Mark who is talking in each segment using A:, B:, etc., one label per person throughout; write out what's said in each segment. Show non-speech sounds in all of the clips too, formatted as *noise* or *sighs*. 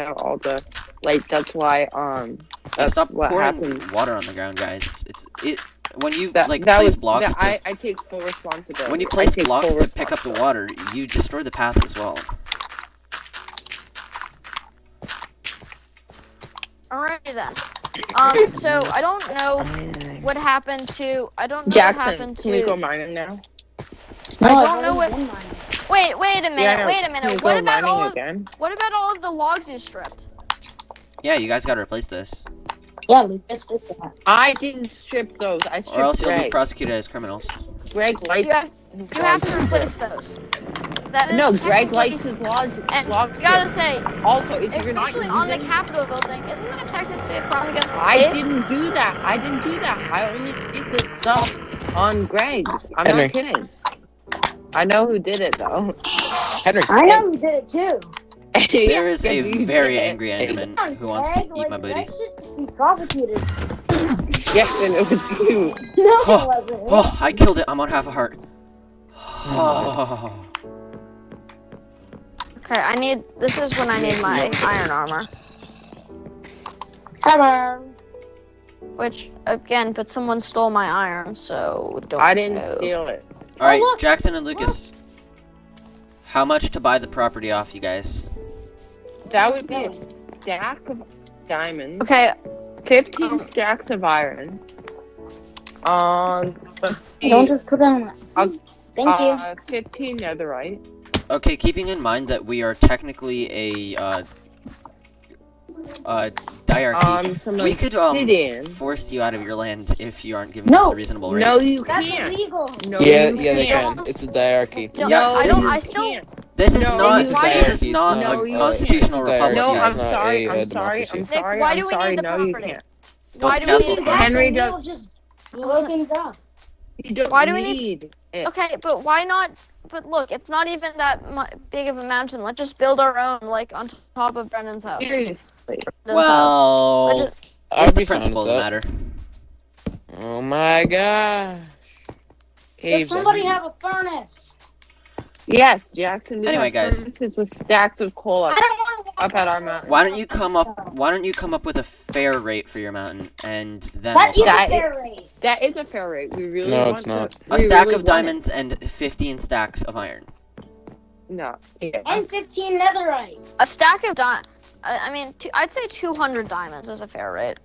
A: out all the like that's why um
B: Yeah,
A: that's
B: stop
A: what
B: pouring
A: happened.
B: water on the ground, guys. It's it when you
A: That,
B: like
A: that
B: place
A: was
B: blocks.
A: that
B: to,
A: I, I take full responsibility.
B: when you
A: I
B: place
A: take
B: blocks
A: full
B: to pick up the water, you destroy the path as well.
C: Alrighty then. Um, so I don't know
A: responsibility.
C: what happened to. I don't know what
A: Jackson,
C: happened
A: can we go
C: to.
A: mining now?
C: I don't know what. Wait, wait a minute.
A: Yeah,
C: wait a
A: Can we
C: minute. What
A: go
C: about all?
A: mining
C: Of,
A: again?
C: what about all of the logs you stripped?
B: Yeah, you guys gotta replace this,
D: Yeah, Lucas did that.
A: I didn't strip those. I
B: or
A: stripped
B: else you'll be
A: Greg.
B: prosecuted as criminals.
A: Greg likes.
C: You have,
A: his
C: you have to
A: logs.
C: replace those. That is
A: No, Greg
C: technically-
A: likes his logs.
C: And
A: logs
C: you gotta
A: stripped.
C: say,
A: also, if you're not
C: especially on the
A: using-
C: Capitol building, isn't that technically a crime against the
A: I
C: state?
A: didn't do that. I didn't do that. I only did this stuff on Greg. I'm
E: Henry.
A: not kidding. I know who did it though.
E: Henry.
D: I know you did it too.
B: There
A: *laughs*
B: is
A: Yeah,
B: a
A: you
B: very
A: did.
B: angry Enderman who wants to eat my booty.
D: That should be prosecuted.
A: Yes, and it was
B: *laughs*
A: you.
D: *laughs* No,
B: Oh,
D: it wasn't.
B: Oh, I killed it. I'm on half a heart.
A: Hmm.
B: *sighs* Oh,
C: Okay, I need. This is when I need my iron armor,
D: Hello.
C: which again, but someone stole my iron, so don't.
A: I didn't
B: Oh.
C: know.
A: steal it.
B: all right,
D: look,
B: Jackson and Lucas. How much to buy the property off, you guys?
A: That would be a stack of diamonds,
C: Okay,
A: fifteen
C: Um,
A: stacks of iron. Um, let's see,
D: Don't just put on.
A: I'll-
D: Thank you.
A: uh, fifteen netherite.
B: Okay, keeping in mind that we are technically a uh, uh, diarchy,
A: Um, some
B: we could um,
A: obsidian.
B: force you out of your land if you aren't giving
D: No.
B: us a reasonable rate.
A: No, you
D: That's
A: can't.
D: illegal.
A: No,
E: Yeah,
A: you
E: yeah, they
A: can't.
E: can. It's a diarchy.
C: don't,
B: Yeah,
C: I
B: this
C: don't.
B: is-
C: I still.
A: Can't.
B: This is
A: No,
B: not.
A: it's a
B: This is
E: diarchy,
B: not
E: it's
A: not- No,
B: a
A: you
B: constitutional
E: can't.
B: republic.
E: It's a
A: No,
E: It's
A: I'm
B: guys.
E: not
A: sorry.
E: a, uh,
A: I'm sorry. I'm
E: democracy.
C: Nick,
A: sorry.
C: why
A: I'm
C: do we
A: sorry.
C: need the
A: No, you
C: property?
A: can't.
B: Don't
C: Why do we
B: cancel
C: need
B: first.
C: that?
A: Henry
D: We'll
A: does-
D: just blow things up.
A: You don't
C: Why do we
A: need. it.
C: Okay, but why not? But look, it's not even that mu- big of a mountain. Let's just build our own, like on top of Brennan's house.
A: Seriously.
C: Brennan's house. I
B: Well,
C: just-
B: it's
E: I'd
B: the
E: be fine
B: principle
E: with
B: that
E: that.
B: matter.
E: Oh my gosh.
D: Does
E: Caves, I
D: somebody
E: mean.
D: have a furnace?
A: Yes, Jackson.
B: Anyway, guys.
A: This is with stacks of coal
D: I
A: up,
D: don't want to.
A: up at our mountain.
B: Why don't you come up? Why don't you come up with a fair rate for your mountain, and then
D: That
B: we'll
D: is
B: talk.
A: That
D: a
A: is-
D: fair rate.
A: That is a fair rate. We really
E: No,
A: want
E: it's not.
B: a stack of diamonds and 15 stacks of iron.
A: No. Yeah.
D: And 15 netherite.
C: a stack of di- I I mean, two, I'd say 200 diamonds is a fair rate.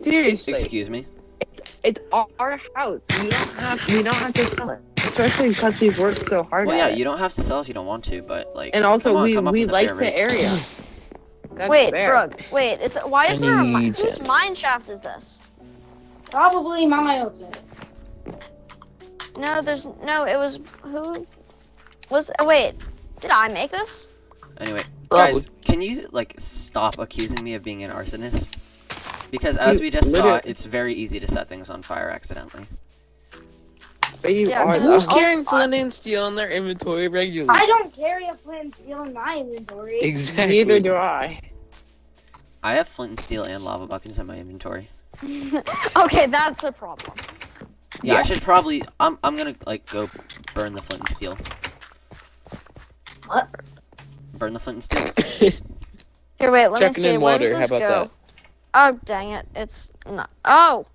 A: Seriously,
B: Excuse me.
A: it's our house. We don't have. We don't have to sell it, especially because we've worked so hard.
B: Well, yeah,
A: at it.
B: you don't have to sell if you don't want to, but like.
A: And also,
B: come on,
A: we
B: come up
A: we
B: with a
A: like
B: fair
A: the
B: rate. *sighs*
A: area. That's
C: wait,
A: fair.
C: Brooke, wait, is the, why is
E: I
C: there a mine?
E: need
C: Whose
E: it.
C: mine shaft is this?
D: Probably miles.
C: No, there's no, it was, who was, oh, wait, did I make this? *laughs*
B: Anyway,
E: Probably.
B: guys, can you like stop accusing me of being an arsonist? Because as
A: You
B: we just saw,
A: literally-
B: it's very easy to set things on fire accidentally.
A: But you
C: Yeah,
A: are.
C: but who's
A: though.
C: Also- carrying flint
E: and steel in their inventory regularly?
D: I don't carry a flint steel in my inventory.
E: *laughs*
B: *laughs*
E: Exactly.
A: Neither do I.
B: I have flint and steel and lava buckets in my inventory.
C: okay, that's a problem.
B: Yeah, I
E: Yeah.
B: should probably. I'm I'm gonna like go burn the flint and steel.
D: What?
B: Burn the flint and
E: *laughs*
B: steel.
C: Here, wait, let
E: Chucking
C: me see,
E: in
C: where
E: water.
C: does
E: How
C: this
E: about
C: go?
E: that?
C: Oh, dang it, it's not, oh,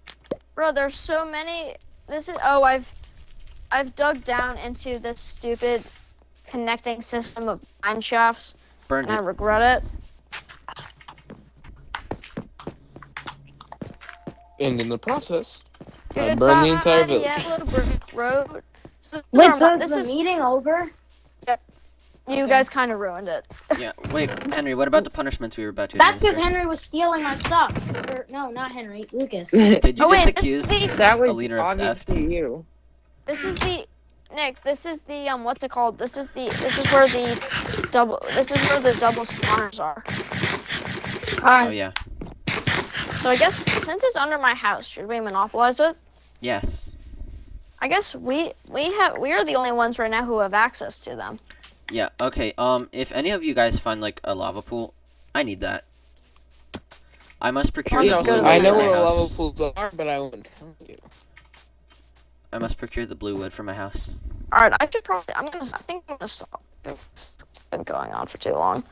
C: bro, there's so many, this is, oh, I've, I've dug down into this stupid connecting system of mine shafts.
B: Burn
C: and I
B: it.
C: regret it.
E: And in the process, I
C: Goodbye,
E: burned the entire village.
C: Yellow Brick Road. So this
D: Wait,
C: is our-
D: so is
C: this
D: the
C: is
D: meeting over?
C: you guys kind of ruined it.
B: Yeah. Wait, Henry. What about the punishments we were about to?
D: That's because
B: administer?
D: Henry was stealing my stuff. Or, no, not Henry. Lucas.
B: Did you
C: Oh wait,
B: just
C: this is
B: accuse?
A: *laughs*
C: the
A: That was
B: leader of
A: obviously you.
C: this is the Nick. This is the um what's it called? This is the this is where the double this is where the double spawners are.
B: Oh yeah.
C: So I guess since it's under my house, should we monopolize it?
B: Yes.
C: I guess we we have we are the only ones right now who have access to them.
B: Yeah. Okay. Um, if any of you guys find like a lava pool, I need that. I must procure.
C: Let's
B: the blue
C: go to
B: wood
C: the
E: I know
B: for my
E: where
B: house.
E: lava pools are, but I won't tell you.
B: I must procure the blue wood for my house.
C: All right, I should probably I'm gonna I think I'm gonna stop. It's been going on for too long.